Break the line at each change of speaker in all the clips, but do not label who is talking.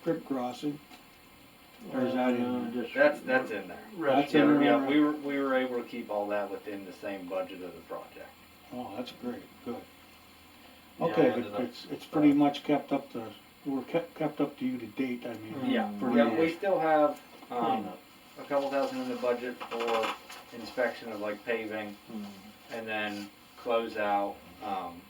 strip crossing? Or is that in
Uh,
there?
just.
That's, that's in there.
That's in
Yeah,
there.
yeah, we were, we were able to keep all that within the same budget of the project.
Oh, that's great, good.
Yeah, I
Okay,
ended up-
it's, it's pretty much kept up to, we're kept, kept up to you to date, I mean.
Yeah,
Hmm. For
yeah,
the-
we still have, um,
Cleanup.
a couple thousand in the budget for inspection of like paving and then close out, um,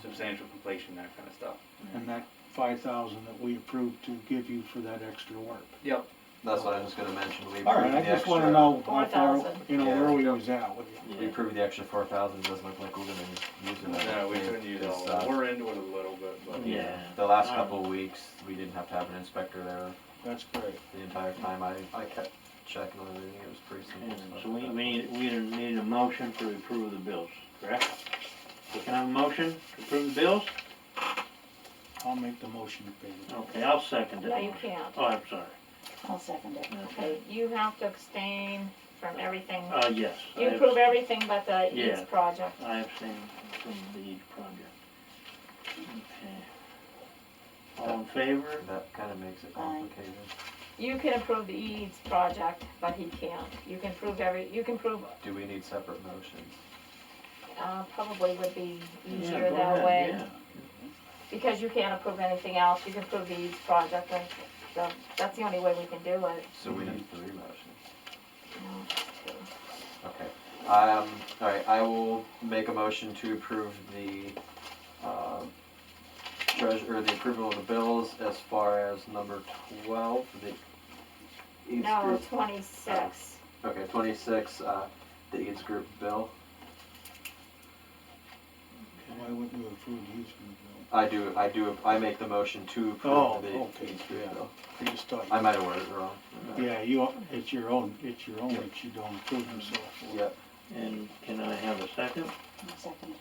substantial completion, that kind of stuff.
And that five thousand that we approved to give you for that extra work.
Yep,
That's what I was gonna mention, we approved the
All
extra.
right, I just wanna know how far,
4,000.
you know,
Yeah.
where we was at with you.
We approved the extra four thousand, doesn't look like we're gonna use it. I
no,
don't
we
think.
couldn't use
It's,
all,
uh,
of it. we're into it a little bit, but.
Yeah. Um,
The last couple of weeks, we didn't have to have an inspector there
That's great.
the entire time, I, I kept checking on everything, it was pretty simple
And
stuff.
So we, we need, we need a motion to approve the bills, correct? So Can I have a motion to approve the bills?
I'll make the motion to pay it.
Okay, I'll second it.
No, you can't.
Oh, I'm sorry.
I'll second it. Okay,
Okay.
you have to abstain from everything.
Uh, yes. I
You
abs-
approve everything but the
Yeah.
Eads project.
I abstain from the Eads project. Okay. All in favor?
That kinda makes it complicated.
You can approve the Eads project, but he can't. You can prove every, you can prove,
Do we need separate motions?
uh, probably would be
Yeah,
easier
go
that
ahead,
way.
yeah.
Because you can't approve anything else. You can approve the Eads project and so that's the only way we can do it.
So
Mm-hmm.
we need three motions.
you know.
Okay, um, alright, I will make a motion to approve the, uh, treasure, or the approval of the bills as far as number twelve, the Eads
No,
Group.
twenty-six.
Okay, twenty-six, uh, the Eads Group bill.
Why wouldn't you approve using the
I do, I do, I make the motion to
Oh,
approve the
okay,
Eads Group
yeah.
bill.
bill? You just thought.
I might have worded it wrong.
Yeah, you, it's your own, it's your own that you don't approve and so forth.
Yep,
And can I have a second?
Second.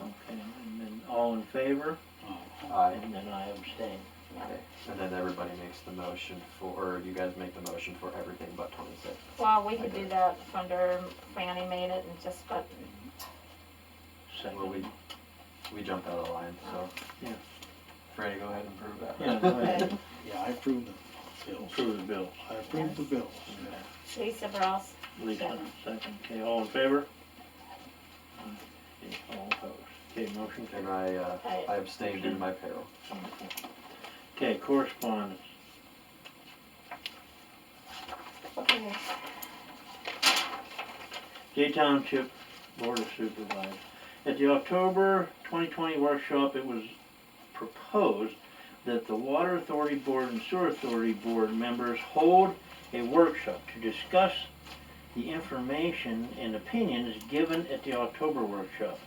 Okay, and then all in favor?
Oh,
aye.
And then I abstain.
Okay, and then everybody makes the motion for, or you guys make the motion for everything but twenty-six.
Well, we could do that under Franny made it and just, but
Well, we,
Second.
we jumped out of line, so.
Yeah.
Franny, go ahead and prove that.
Yeah, go ahead.
Yeah, I approved the bills.
Approve the bills.
I approved the bills.
Lisa Ross,
Lisa, second. Okay, all in favor? Okay, all opposed. Okay, motion
And
carried.
I, uh, I abstained due to my peril.
Okay, correspondence.
okay,
J Township Board of Supervisors. At the October 2020 workshop, it was proposed that the Water Authority Board and Sewer Authority Board members hold a workshop to discuss the information and opinions given at the October workshop.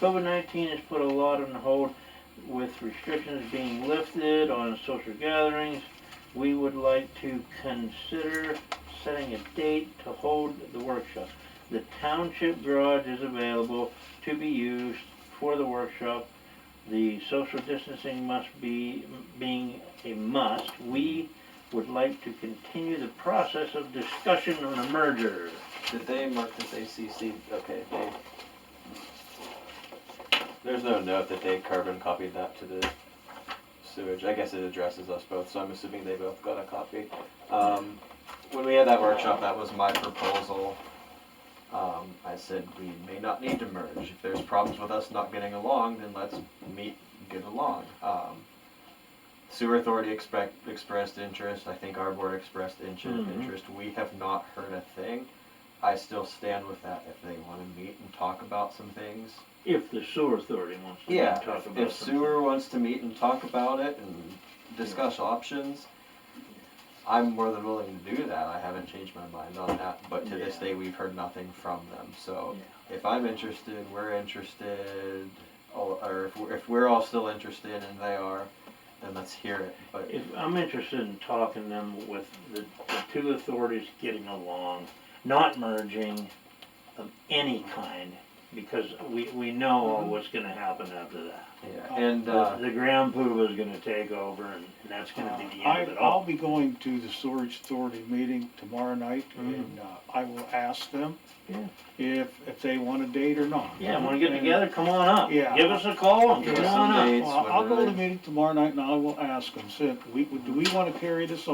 COVID-19 has put a lot on hold with restrictions being lifted on social gatherings. We would like to consider setting a date to hold the workshop. The township garage is available to be used for the workshop. The social distancing must be, being a must, we would like to continue the process of discussion on a merger.
Did they mark this ACC, okay, they. There's no note that they carbon copied that to the sewage, I guess it addresses us both, so I'm assuming they both got a copy. Um, when we had that workshop, that was my proposal. Um, I said we may not need to merge, if there's problems with us not getting along, then let's meet, get along. Um, Sewer authority expect, expressed interest, I think our board expressed interest,
Mhm.
interest, we have not heard a thing. I still stand with that. If they want to meet and talk about some things,
If the sewer authority wants to
yeah.
talk
if-
about
If
something.
sewer wants to meet and talk about it and discuss options, I'm more than willing to do that. I haven't changed my mind on that, but to this
Yeah.
day, we've heard nothing from them. So if I'm interested, we're interested, all- or if we're, if we're all still interested and they are, then let's hear it. But
If, I'm interested in talking them with the, the two authorities getting along, not merging of any kind, because we, we know
Mm-hmm.
what's gonna happen after that.
Yeah, and, uh,
The, the ground poop is gonna take over and, and that's gonna be the
Uh, I,
end of it Oh,
I'll
all.
be going to the storage authority meeting tomorrow night,
Mhm.
and, uh, I will ask them
Yeah.
if, if they want a date or not.
Yeah, wanna get
And-
together, come on up.
Yeah.
Give us a call and
Give
come
us
on
some
up.
dates,
Well, I'll go
when
to
they're-
the meeting tomorrow night, and I will ask them, say, we, do we wanna carry this